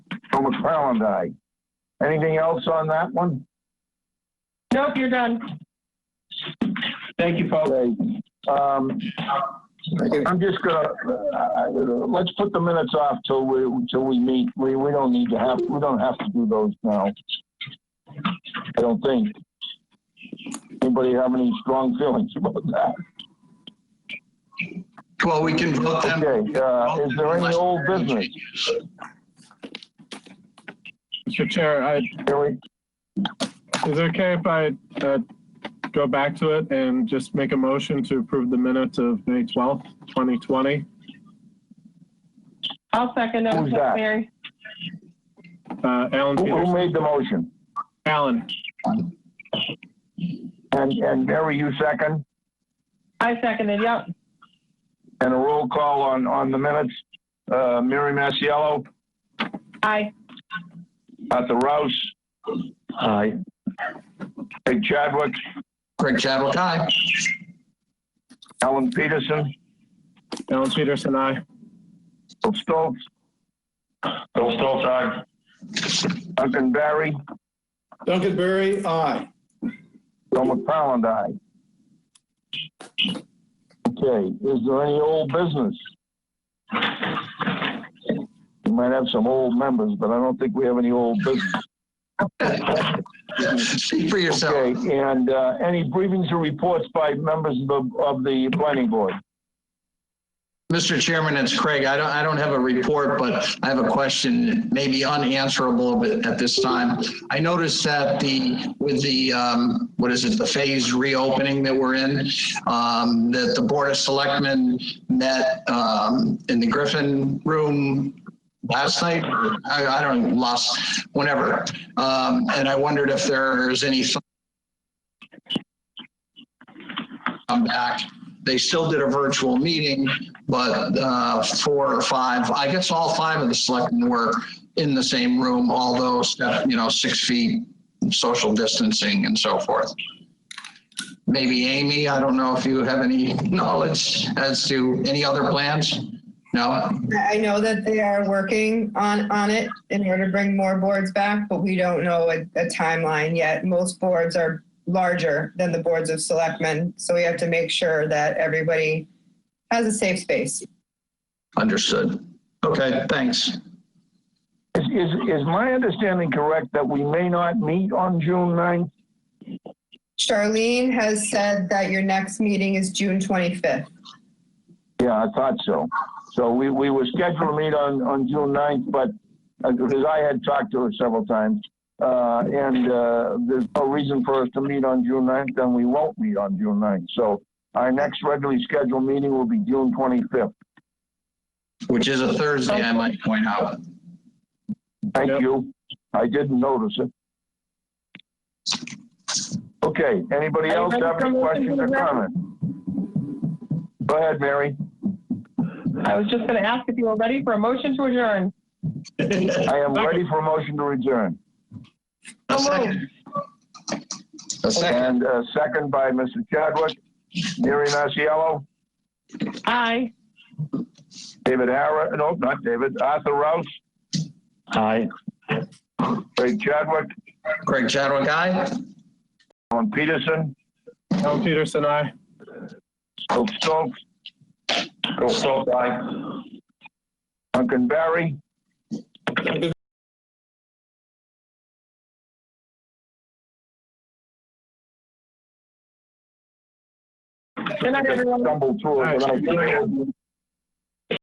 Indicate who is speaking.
Speaker 1: Joe McFarland, aye. Anything else on that one?
Speaker 2: Nope, you're done.
Speaker 3: Thank you, folks.
Speaker 1: Okay. Um, I'm just gonna, uh, let's put the minutes off till we, till we meet. We, we don't need to have, we don't have to do those now. I don't think. Anybody have any strong feelings about that?
Speaker 4: Well, we can vote them.
Speaker 1: Okay, uh, is there any old business?
Speaker 5: Mr. Chair, I,
Speaker 1: Here we,
Speaker 5: is it okay if I, uh, go back to it and just make a motion to approve the minutes of May twelfth, twenty twenty?
Speaker 2: I'll second that.
Speaker 1: Who's that?
Speaker 2: Mary.
Speaker 5: Uh, Alan
Speaker 1: who- who
Speaker 5: Peters,
Speaker 1: made the motion?
Speaker 5: Alan,
Speaker 1: And, and Mary, you second?
Speaker 2: I seconded, yep.
Speaker 1: And a roll call on, on the minutes. Uh, Mary Masiallo,
Speaker 2: Aye.
Speaker 1: Arthur Rouse,
Speaker 3: Aye.
Speaker 1: Peg Chadwick,
Speaker 4: Greg Chadwick, aye.
Speaker 1: Alan Peterson,
Speaker 5: Alan Peterson, I.
Speaker 1: Bill Stoltz,
Speaker 3: Bill Stoltz, aye.
Speaker 1: Duncan Barry,
Speaker 6: Duncan Berry, aye.
Speaker 1: Joe McFarland, aye. Okay, is there any old business? We might have some old members, but I don't think we have any old business.
Speaker 4: Speak for yourself.
Speaker 1: Okay, and uh, any briefings or reports by members of the, of the planning board?
Speaker 4: Mr. Chairman, it's Craig. I don't, I don't have a report, but I have a question, maybe unanswerable but at this time. I noticed that the, with the, um, what is it, the phase reopening that we're in, um, that the Board of Selectmen met, um, in the Griffin Room last night, or I, I don't, last, whenever. Um, and I wondered if there's any thought come back. They still did a virtual meeting, but uh, four or five, I guess all five of the selectmen were in the same room, although, step- you know, six feet, social distancing and so forth. Maybe Amy, I don't know if you have any knowledge as to any other plans? No?
Speaker 7: I I know that they are working on, on it in order to bring more boards back, but we don't know a, a timeline yet. Most boards are larger than the boards of selectmen, so we have to make sure that everybody has a safe space.
Speaker 4: Understood. Okay, thanks.
Speaker 1: Is, is, is my understanding correct that we may not meet on June 9th?
Speaker 7: Charlene has said that your next meeting is June 25th.
Speaker 1: Yeah, I thought so. So we, we were scheduled to meet on, on June 9th, but, uh, because I had talked to her several times, uh, and, uh, there's no reason for us to meet on June 9th, then we won't meet on June 9th. So our next regularly scheduled meeting will be June 25th.
Speaker 4: Which is a Thursday, I might point out.
Speaker 1: Thank
Speaker 5: Yep.
Speaker 1: you. I didn't notice it. Okay, anybody
Speaker 2: Are you
Speaker 1: else
Speaker 2: ready
Speaker 1: have
Speaker 2: for
Speaker 1: any
Speaker 2: motion
Speaker 1: questions
Speaker 2: to
Speaker 1: or
Speaker 2: the record?
Speaker 1: comments? Go ahead, Mary.
Speaker 2: I was just gonna ask if you were ready for a motion to adjourn.
Speaker 1: I am ready for a motion to adjourn.
Speaker 4: A second. A second.
Speaker 1: And uh, second by Mr. Chadwick, Mary Masiallo,
Speaker 2: Aye.
Speaker 1: David Harris, no, not David, Arthur Rouse,
Speaker 3: Aye.
Speaker 1: Craig Chadwick,
Speaker 4: Craig Chadwick, aye?
Speaker 1: Alan Peterson,
Speaker 5: Alan Peterson, I.
Speaker 1: Bill Stokes,
Speaker 3: Bill Stoltz, aye.
Speaker 1: Duncan Barry,
Speaker 6: Duncan
Speaker 2: Good night, everyone.
Speaker 1: stumbled through it, but I think